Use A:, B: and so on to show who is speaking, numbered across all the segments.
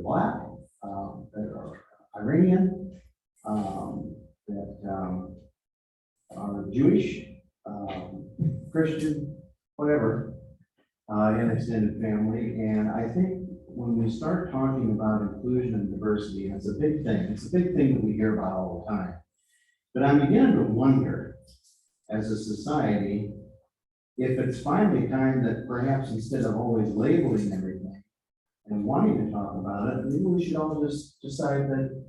A: black, um, that are Iranian, um, that, um, are Jewish, um, Christian, whatever, uh, in extended family. And I think when we start talking about inclusion and diversity, and it's a big thing, it's a big thing that we hear about all the time. But I'm beginning to wonder, as a society, if it's finally time that perhaps instead of always labeling everything and wanting to talk about it, maybe we should all just decide that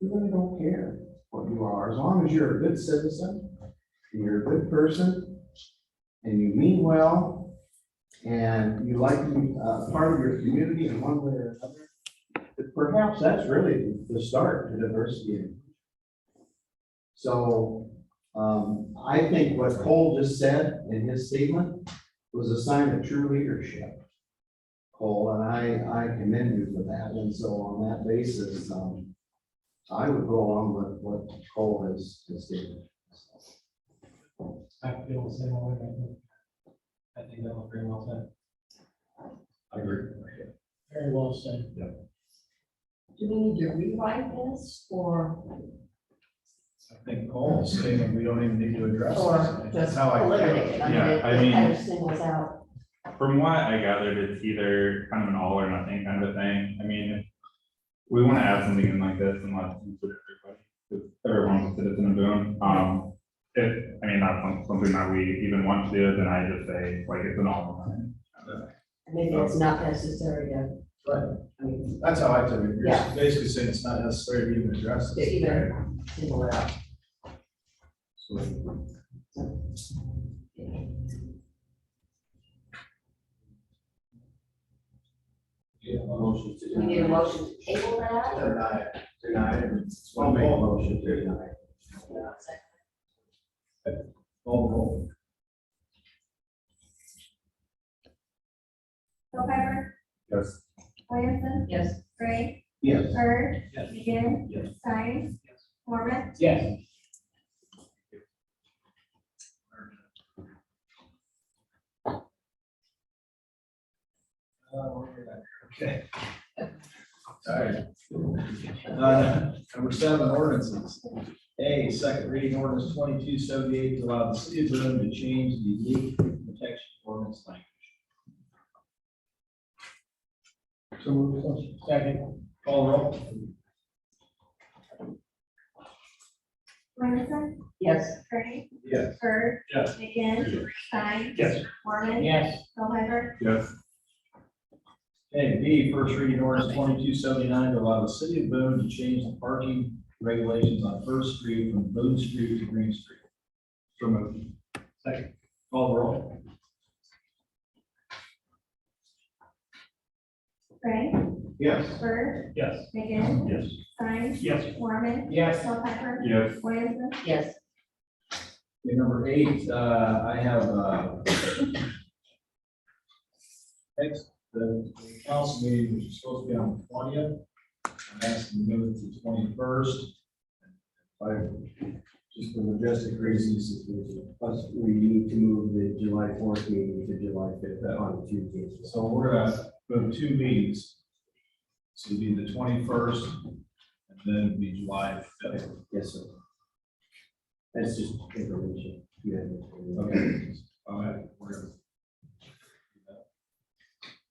A: we really don't care what you are, as long as you're a good citizen, and you're a good person, and you mean well, and you like to be uh, part of your community in one way or another. But Perhaps that's really the start to diversity. So um, I think what Cole just said in his statement was a sign of true leadership. Cole, and I, I commend you for that. And so on that basis, um, I would go along with what Cole has, has stated.
B: I feel the same way. I think- I think that was very well said.
C: I agree.
B: Very well said.
D: Do we need to rewrite this or,
C: I think Cole's statement, we don't even need to address
D: or
C: this.
D: just
C: That's how I feel.
D: eliminate it? I mean,
E: Yeah,
D: it
E: I
D: it
E: mean-
D: kind of singles out.
E: From what I gathered, it's either kind of an all or nothing kind of a thing. I mean, if we want to add something in like this and let include everybody, because everyone considers it a boon. Um, if, I mean, that's some- something that we even want to do, then I just say, like, it's an all or nothing.
D: Maybe it's not necessary to, I mean,
C: That's how I took it. You're
D: Yeah.
C: basically saying it's not necessary to even address
D: to
C: this.
D: even single it out.
B: Yeah, motion to.
D: Do we need a motion to table that or?
C: Deny it.
A: Tonight, I'll make a motion to deny.
C: Cole, Cole.
F: Hilheimer,
E: Yes.
F: Williamson,
D: Yes.
F: Gray,
A: Yes,
F: Bird,
B: Yes.
F: McGinn,
C: Yes.
F: Stein, Mormon,
B: Yes.
C: Uh, we're here. Okay. All right. Uh, Number seven, ordinances. A, second reading ordinance twenty-two seventy-eight to allow the city of Boone to change the leak protection ordinance language. So move. Second. Call roll.
F: Williamson,
D: Yes.
F: Gray,
C: Yes.
F: Bird,
C: Yes.
F: McGinn, Stein,
C: Yes.
F: Mormon,
B: Yes.
F: Hilheimer,
E: Yes.
C: Okay, B, first reading ordinance twenty-two seventy-nine to allow the city of Boone to change the parking regulations on First Street from Boone Street to Green Street.
E: So moved.
C: Second. Call roll.
F: Gray,
A: yes.
F: Bird,
C: Yes.
F: McGinn,
E: Yes.
F: Stein,
C: Yes.
F: Mormon,
B: Yes.
F: Hilheimer,
E: Yes.
F: Williamson,
D: Yes.
C: Okay, number eight, uh, I have, uh, next, the the council meeting, which is supposed to be on the twentieth, I'm asking to move it to the twenty-first.
A: I, just for logistic reasons, plus we need to move the July fourth meeting to July fifth uh, on Tuesday.
C: So we're gonna move two meetings. So it'd be the twenty-first, and then it'd be July fifth.
A: Yes, sir. That's just information. Yeah.
C: Okay. All right, we're gonna-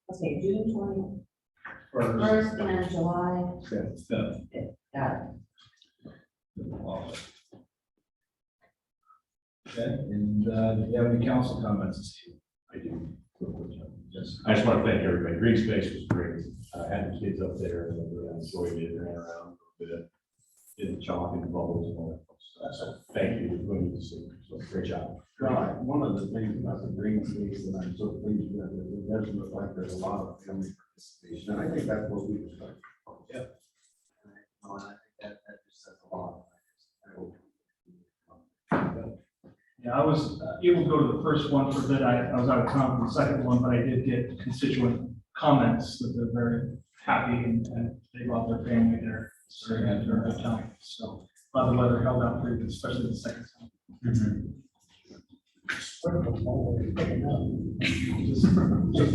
D: Okay, June twenty
C: First,
D: first and July.
C: fifth.
D: Got
C: Okay, and, uh, do you have any council comments this evening? I do. Yes.
G: I just want to thank everybody. Green Space was great. I had the kids up there and they enjoyed it, ran around a little bit. Did the chalk and bubbles and all that. So thank you for doing this. So great job.
A: Right, one of the things about the green space that I'm so pleased with, is it doesn't look like there's a lot of family participation, and I think that's what we were talking about. Yep. And I think that, that just says a lot. I hope.
H: Yeah, I was uh, able to go to the first one for a bit. I, I was out of town for the second one, but I did get constituent comments that they're very happy and, and they love their family there. So they had a very good time. So, a lot of the weather held out pretty good, especially the second time. Just, just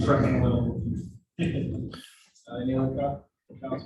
H: trekking a little.
C: Uh, Any other co- council